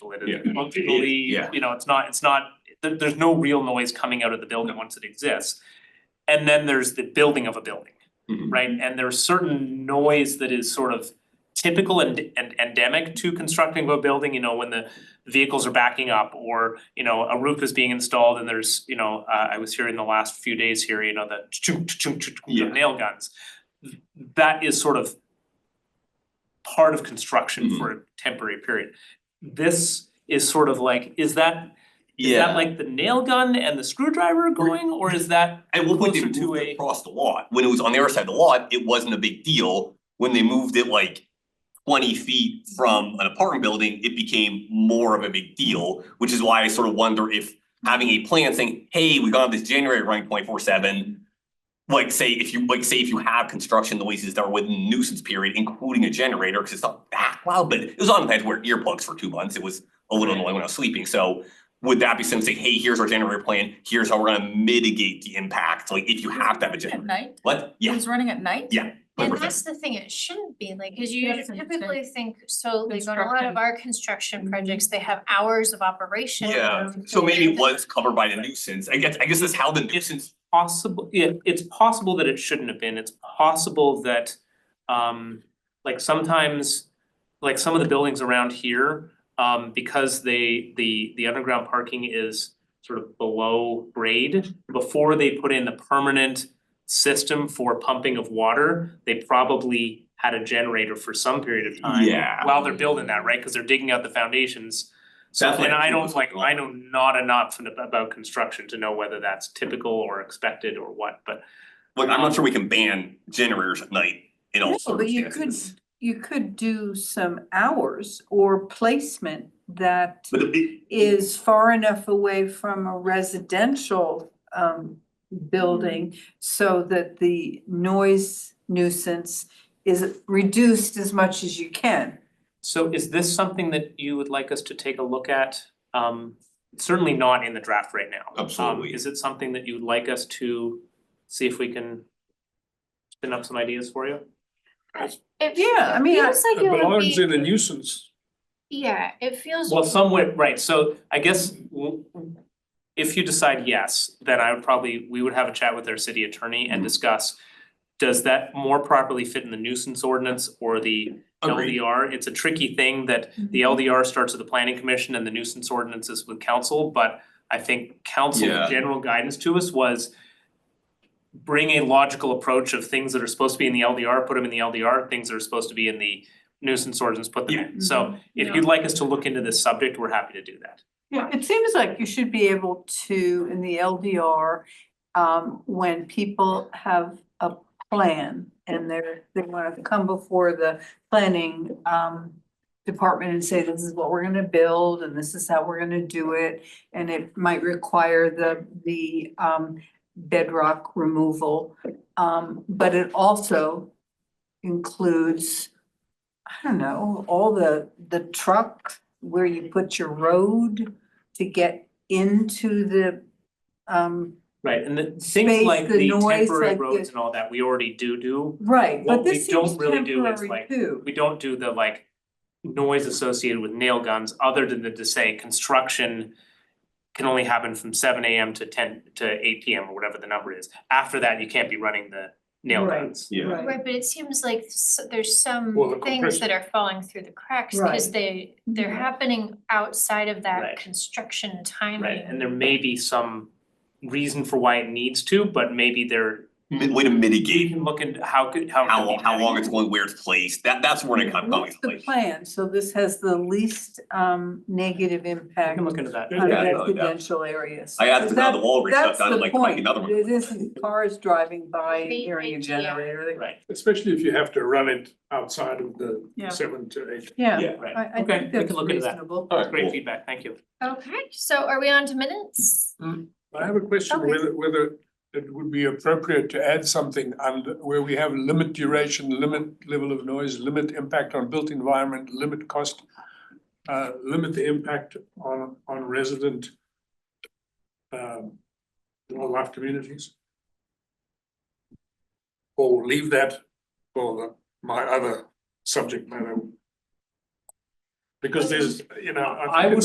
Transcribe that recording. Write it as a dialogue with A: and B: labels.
A: insulated
B: Yeah.
A: functionally,
B: Yeah.
A: you know, it's not, it's not, there there's no real noise coming out of the building once it exists. And then there's the building of a building,
C: Mm-hmm.
B: Mhm.
A: right? And there's certain noise that is sort of typical and and endemic to constructing a building, you know, when the vehicles are backing up or, you know, a roof is being installed and there's, you know, uh, I was hearing the last few days here, you know, the chunk chunk chunk
B: Yeah.
A: nail guns. That is sort of part of construction
B: Mhm.
A: for a temporary period. This is sort of like, is that, is that like the nail gun and the screwdriver going, or is that,
C: At one point, they
A: Closer to
C: moved
A: a-
C: it across the lot, when it was on their side of the lot, it wasn't a big deal, when they moved it like twenty feet from an apartment building, it became more of a big deal, which is why I sort of wonder if having a plan saying, hey, we got this January running twenty four seven. Like say, if you, like say if you have construction noises that are within nuisance period, including a generator, because it's not that loud, but it was on, I had to wear earplugs for two months, it was a little annoying when I was sleeping, so would that be something, hey, here's our generator plan, here's how we're gonna mitigate the impact, like if you have to have a
D: At
C: generator,
D: night,
C: what?
D: it
C: Yeah.
D: was running at night?
E: And
C: 100%.
E: that's the thing, it shouldn't be like, cause you
D: That's insane.
E: typically think, so like on a lot of
D: Construction.
E: our construction Mm-hmm. projects, they have hours of operation.
C: Yeah,
E: um,
C: so maybe it
E: and-
C: was covered by the nuisance, I guess, I guess that's how the nuisance,
A: possible, yeah, it's possible that it shouldn't have been, it's possible that um like sometimes like some of the buildings around here, um because they the the underground parking is sort of below grade, before they put in the permanent system for pumping of water, they probably had a generator for some period of time
C: yeah.
A: while they're building that, right? Cause they're digging out the foundations. So
C: That's what
A: and
C: I
A: I
C: think
A: don't
C: was
A: like,
C: going
A: I
C: on.
A: know not enough in- about construction to know whether that's typical or expected or what, but
C: Look, I'm not sure we can ban generators at night in all
F: No, but you could,
C: circumstances.
F: you could do some hours or placement that
C: But it-
F: is far enough away from a residential um building
D: Mm-hmm.
F: so that the noise nuisance is reduced as much as you can.
A: so is this something that you would like us to take a look at? Um certainly not in the draft right now. Um,
C: Absolutely.
A: is it something that you'd like us to see if we can spin up some ideas for you?
E: It
F: Yeah, I mean, I-
E: feels like
B: It
E: it would
B: belongs in a
E: be,
B: nuisance.
E: yeah, it feels,
A: Well, somewhat, right, so I guess w- if you decide yes, then I would probably, we would have a chat with our city attorney
C: Mm-hmm.
A: and discuss. Does that more properly fit in the nuisance ordinance or the
C: Agreed.
A: LDR? It's a tricky thing that the LDR starts with the planning commission and the nuisance ordinance is with council, but I think council's
C: Yeah.
A: general guidance to us was bring a logical approach of things that are supposed to be in the LDR, put them in the LDR, things that are supposed to be in the nuisance ordinance, put them in. So
F: Mm-hmm.
A: if you'd like us to look into this subject, we're happy to do that.
F: Yeah, it seems like you should be able to, in the LDR, um, when people have a plan and they're, they wanna come before the planning, um, department and say, this is what we're gonna build and this is how we're gonna do it. And it might require the, the, um, bedrock removal. Um, but it also includes, I don't know, all the, the truck where you put your road to get into the, um,
A: Right, and the things
F: Space,
A: like
F: the
A: the
F: noise,
A: temporary
F: like the-
A: roads and all that, we already do do.
F: right,
A: What
F: but
A: we
F: this
A: don't
F: seems
A: really do is,
F: temporary
A: like,
F: too.
A: We don't do the like noise associated with nail guns, other than to say construction can only happen from seven AM to ten to eight PM or whatever the number is. After that, you can't be running the nail
F: Right.
A: guns.
B: Yeah.
F: Right.
E: right, but it seems like s- there's
B: Well, the
E: some things that are falling through the cracks, cause
F: Right.
E: they, they're
A: Right.
E: happening outside of
A: Right.
E: that construction timing.
A: Right, and there may be some reason for why it needs to, but maybe there,
C: mi- Way to
A: you
C: mitigate
A: can look into how could, how. it
C: how
A: could be
C: long, how long
A: managed.
C: it's going, where it's placed, that, that's where I'm going
F: What's
C: with
F: the
C: place.
F: plan? So this has the least, um, negative
A: We
F: impact
A: can look into that.
F: on
C: Yeah, no, yeah.
F: residential areas.
C: I asked
F: Because
C: about the
F: that-
C: wall, reached
F: That's
C: down,
F: the
C: like, like
F: point.
C: another one.
F: It isn't cars driving by
E: They-
F: hearing
E: yeah.
F: a generator. They-
A: Right,
B: Especially if you have to run it outside of the
F: Yeah.
B: seven to eight.
F: Yeah,
A: right.
F: I, I
A: Okay,
F: think
A: we
F: that's
A: can look into that.
F: reasonable.
C: All right,
A: Great
C: cool.
A: feedback, thank you.
E: Okay, so are we on to minutes?
B: I have a question
E: Okay.
B: whether whether it would be appropriate to add something under where we have limit duration, limit level of noise, limit impact on built environment, limit cost. Uh, limit the impact on on resident. Um, wildlife communities. Or leave that for the- my other subject matter.
E: because there's, you know.
B: I would